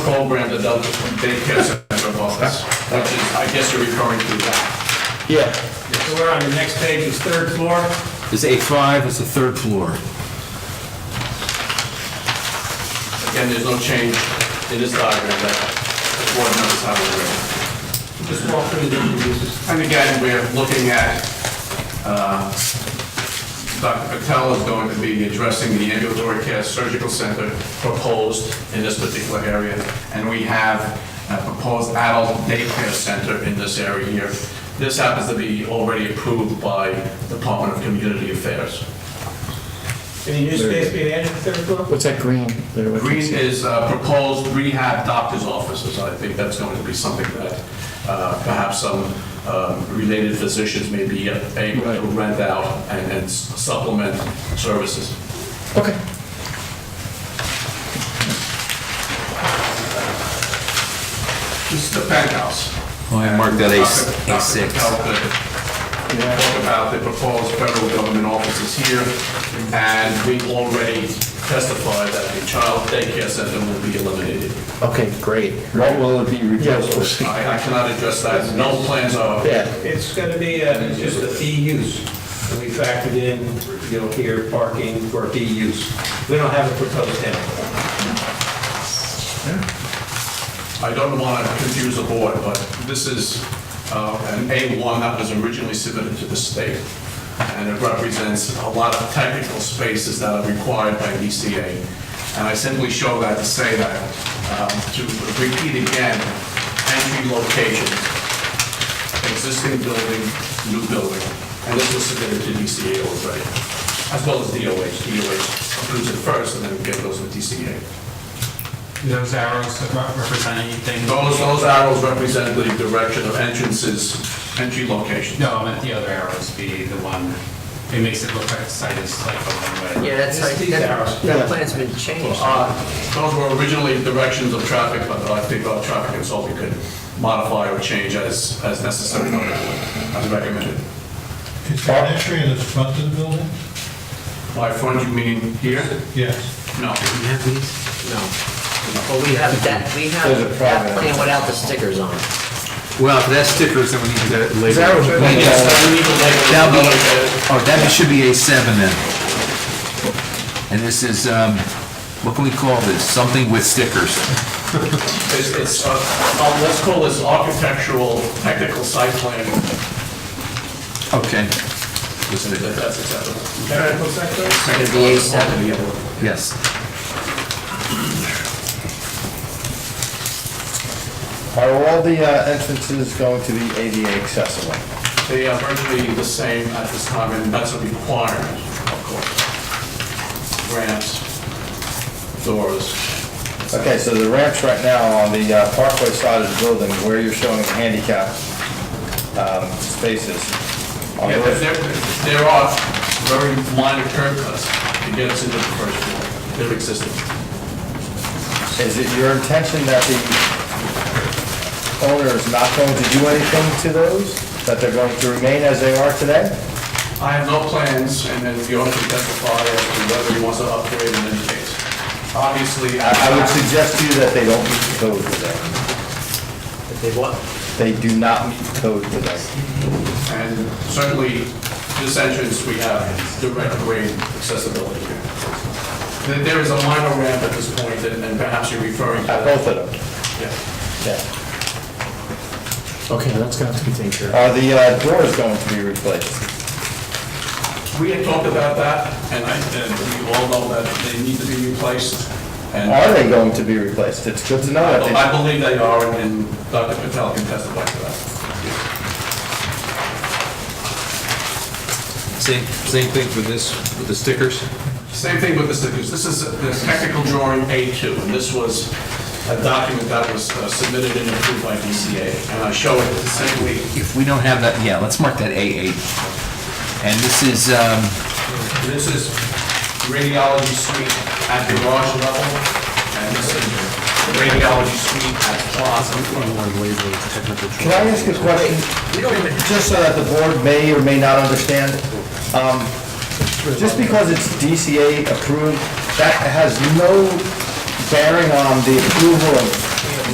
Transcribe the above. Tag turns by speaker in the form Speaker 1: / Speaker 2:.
Speaker 1: program that does daycare center office, which is, I guess you're referring to that.
Speaker 2: Yeah.
Speaker 3: So we're on the next page, it's third floor.
Speaker 2: It's A5, it's the third floor. Oh,
Speaker 1: Again, there's no change in this diagram that the board members have already.
Speaker 3: Just walk through the different uses.
Speaker 1: And again, we're looking at, uh, Dr. Patel is going to be addressing the ambulatory care surgical center proposed in this particular area. And we have a proposed adult daycare center in this area here. This happens to be already approved by Department of Community Affairs.
Speaker 3: Any new space being added to third floor?
Speaker 4: What's that green there? What-
Speaker 1: Green is uh, proposed rehab doctor's offices. I think that's going to be something that uh, perhaps some um, related physicians may be able to
Speaker 4: Right.
Speaker 1: rent out and and supplement services.
Speaker 4: Okay.
Speaker 1: This is the penthouse.
Speaker 2: Oh, I marked that as
Speaker 1: Dr.
Speaker 2: A6.
Speaker 1: Patel could Talk about the proposed federal government offices here, and we've already testified that the child daycare center will be eliminated.
Speaker 4: Okay, great.
Speaker 2: What will it be replaced with?
Speaker 4: Yeah.
Speaker 1: I I cannot address that. No plans are
Speaker 4: Yeah.
Speaker 3: It's gonna be uh, just a fee use. And we factored in, you know, here, parking for fee use. We don't have a proposed tenant.
Speaker 1: I don't want to confuse the board, but this is uh, an A1 that was originally submitted to the state, and it represents a lot of technical spaces that are required by DCA. And I simply show that to say that, um, to repeat again, entry locations, existing building, new building, and this was submitted to DCA already, as well as DOH. DOH approves it first, and then we get those with DCA.
Speaker 5: Those arrows that re- represent anything?
Speaker 1: Those, those arrows represent the direction of entrances, entry locations.
Speaker 5: No, I meant the other arrows be the one, it makes it look like the site is like a one-way.
Speaker 6: Yeah, that's like,
Speaker 3: These arrows.
Speaker 6: that that plan's been changed.
Speaker 1: Uh, Those were originally directions of traffic, but I think our traffic consultant could modify or change as, as necessary, as recommended.
Speaker 7: Is there an entry in the front of the building?
Speaker 1: By front, you mean here?
Speaker 7: Yes.
Speaker 1: No.
Speaker 6: Well, we have that, we have that plan without the stickers on it.
Speaker 2: Well, if that's stickers, then we need to get it later.
Speaker 4: That was-
Speaker 2: We need to-
Speaker 1: We need to label it.
Speaker 2: That'll be, oh, that should be A7 then. And this is, um, what can we call this? Something with stickers.
Speaker 1: It's, it's, uh, uh, let's call this architectural technical site plan,
Speaker 2: Okay.
Speaker 1: if that's acceptable.
Speaker 6: It's gonna be A7.
Speaker 2: Yes.
Speaker 4: Are all the uh, entrances going to be ADA accessible?
Speaker 1: They are virtually the same at this time, and that's a requirement, of course. Ramps, doors.
Speaker 4: Okay, so the ramps right now on the uh, Parkway side of the building, where you're showing the handicap um, spaces. on
Speaker 1: Yeah,
Speaker 4: those-
Speaker 1: there, there are very minor curb cuts to get us into the first floor. They're existing.
Speaker 4: Is it your intention that the owner is not going to do anything to those? That they're going to remain as they are today?
Speaker 1: I have no plans, and then the owner can testify as to whether he wants to upgrade in any case. Obviously, I
Speaker 4: I I would suggest to you that they don't meet the code today.
Speaker 6: They what?
Speaker 4: They do not meet the code today.
Speaker 1: And certainly, this entrance, we have direct grade accessibility. There- There is a minor ramp at this point, and and perhaps you're referring to
Speaker 4: At
Speaker 1: that.
Speaker 4: both of them,
Speaker 1: Yeah.
Speaker 4: yeah.
Speaker 6: Okay, that's gonna have to be taken care
Speaker 4: Are the uh, doors going to be replaced?
Speaker 1: We had talked about that, and I, and we all know that they need to be replaced. And
Speaker 4: Are they going to be replaced? It's good to know that they...
Speaker 1: I believe they are, and- and Dr. Patel can testify to that.
Speaker 2: Same, same thing for this, with the stickers?
Speaker 1: Same thing with the stickers. This is the technical drawing A2, and this was a document that was uh, submitted and approved by DCA. And I show it simply
Speaker 2: If we don't have that, yeah, let's mark that A8. And this is, um,
Speaker 1: This is radiology suite at garage level, and this is radiology suite at plaza.
Speaker 4: Can I ask a question? Just so that the board may or may not understand, um, just because it's DCA approved, that has no bearing on the approval of